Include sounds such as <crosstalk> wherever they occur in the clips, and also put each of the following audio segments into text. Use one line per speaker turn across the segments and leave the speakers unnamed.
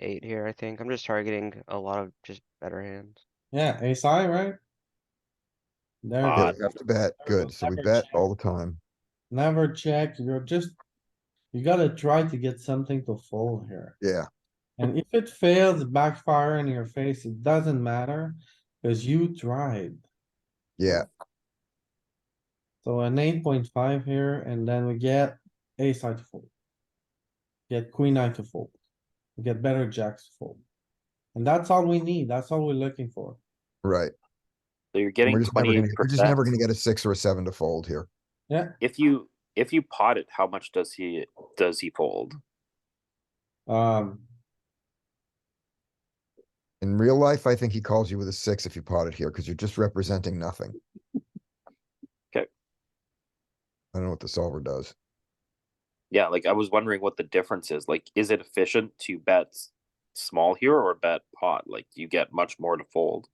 eight here, I think. I'm just targeting a lot of just better hands.
Yeah, ace high, right? There,
Yeah,
it
Odd.
is.
we have to bet, good, so we
Average.
bet all the time.
never check, you're just, you gotta try to get something to fold here.
Yeah,
And if it fails, backfire in your face, it doesn't matter, cause you tried.
yeah,
So an eight point five here, and then we get ace high to fold. Get queen eye to fold. We Get better jacks to fold. And that's all we need, that's all we're looking for.
right.
So you're
And
getting
We're just never
twenty
gonna,
eight
we're just never
percent.
gonna get a six or a seven to fold here.
If you if you pot it, how much does he does he fold?
Um,
In real life, I think he calls you with a six if you pot it here, because you're just
<laughs>
representing nothing.
'Kay.
I don't know what the solver does.
Yeah, like I was wondering what the difference is. Like, is it efficient to bet s- small here or bet pot? Like, you get much more to fold.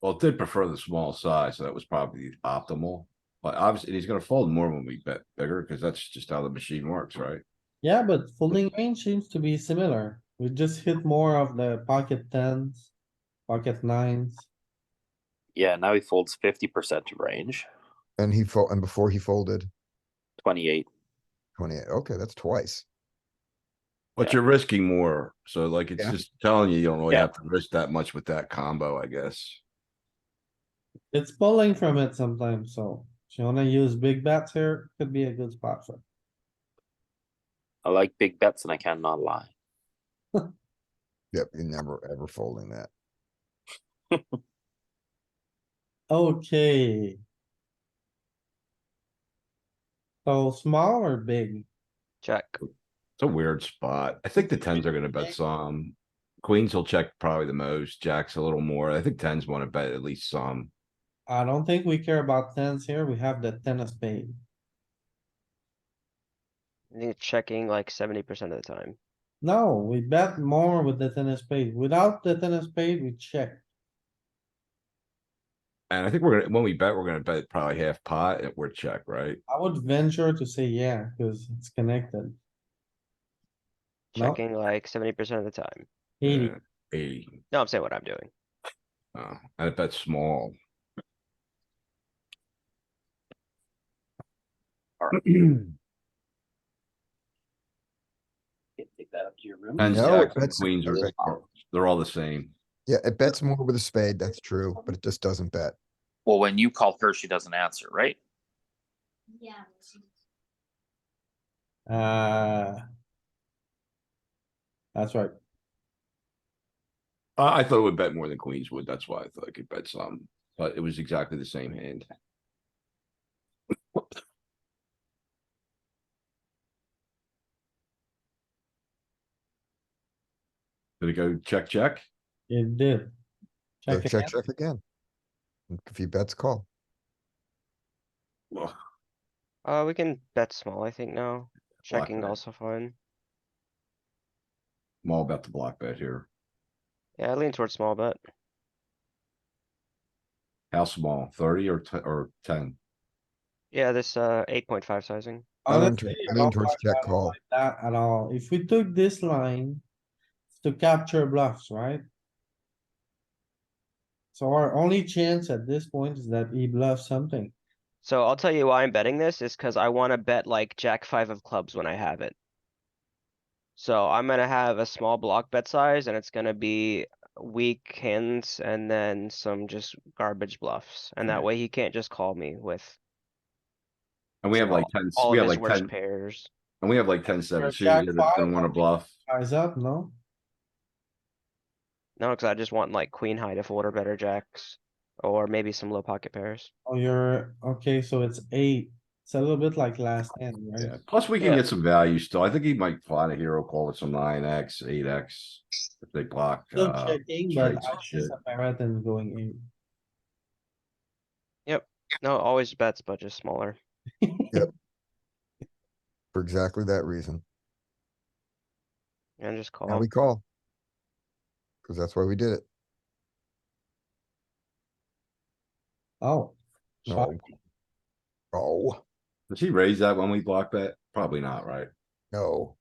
Well, it did prefer the small size, so that was probably optimal. But obviously, he's gonna fold more when we bet bigger, because that's just how the machine works, right?
yeah, but folding range seems to be similar. We just hit more of the pocket tens, pocket nines.
Yeah, now he folds fifty percent of range,
And he fold, and before he folded,
twenty eight.
twenty-eight, okay, that's twice.
Yeah.
But you're risking more, so like, it's
Yeah.
just telling you, you don't really
Yeah.
have to risk that much with that combo, I guess.
It's pulling from it sometimes, so if you wanna use big bets here, could be a good spot for. it.
I like big bets, and I cannot lie.
Yep, you're never, ever folding that.
Okay. So small or big?
Check.
It's a weird spot. I think the tens are gonna bet some. Queens will check probably the most, jacks a little more. I think tens wanna bet at least some.
I don't think we care about tens here. We have the ten of spade.
I think it's checking like seventy percent of the time.
No, we bet more with the ten of spade. Without the ten of spade, we check.
And I think we're gonna, when we bet, we're gonna bet probably half pot and we're check, right?
I would venture to say yeah, cuz it's connected. No.
Checking like seventy percent of the time.
Eighty,
Uh, Eighty.
No, I'm saying what I'm doing.
Oh, I bet small.
Can take that up to your room.
Tens,
No,
jacks, and
that's-
queens are, are- they're all the same.
Yeah, it bets more with a spade, that's true, but it just doesn't bet.
Well, when you call her, she doesn't answer, right?
Yeah.
uh. That's right.
I, I thought it would bet more than queens would, that's why I thought I could bet some, but it was exactly the same hand. Did it go check, check?
It did.
So
Check
Check,
again.
check again. If he bets, call.
Ugh,
Uh, we can bet small, I think now. Checking
bet.
also fine.
I'm all about the block bet here.
Yeah, I lean towards small bet.
How small, thirty or ten, or ten?
Yeah, this uh eight point five sizing.
I lean
Honestly,
towards-
I
I lean
don't
towards
like
check
that-
call.
that at all. If we took this line it's to capture bluffs, right? So our only chance at this point is that he bluffs something.
So I'll tell you why I'm betting this is because I want to bet like jack five of clubs when I have it. So I'm gonna have a small block bet size and it's gonna be weak hands and then some just garbage bluffs. And that
Right.
way he can't just call me with
And we have like
All-
ten,
all
we
of
have
his
like
worst
ten,
pairs.
and we have like ten, seven, suited
jack
here that
five,
don't wanna bluff.
Eyes up, no?
No, because I just want like queen high to fold or better jacks or maybe some low pocket pairs.
Oh, you're, okay, so it's eight. It's a little bit like last hand,
Yeah,
right?
plus we can
Yeah.
get some value still. I think he might find a hero call with some nine X, eight X. If they block,
Still
uh,
checking, but
straights
I
and shit.
just a parrot and going
No, always bets, but just smaller.
eight.
For exactly that reason.
And just
Now
call.
we call. Cause that's why we did it.
<laughs> Oh. shot.
No. Oh,
does he raise that when we block that? Probably not, right?
no.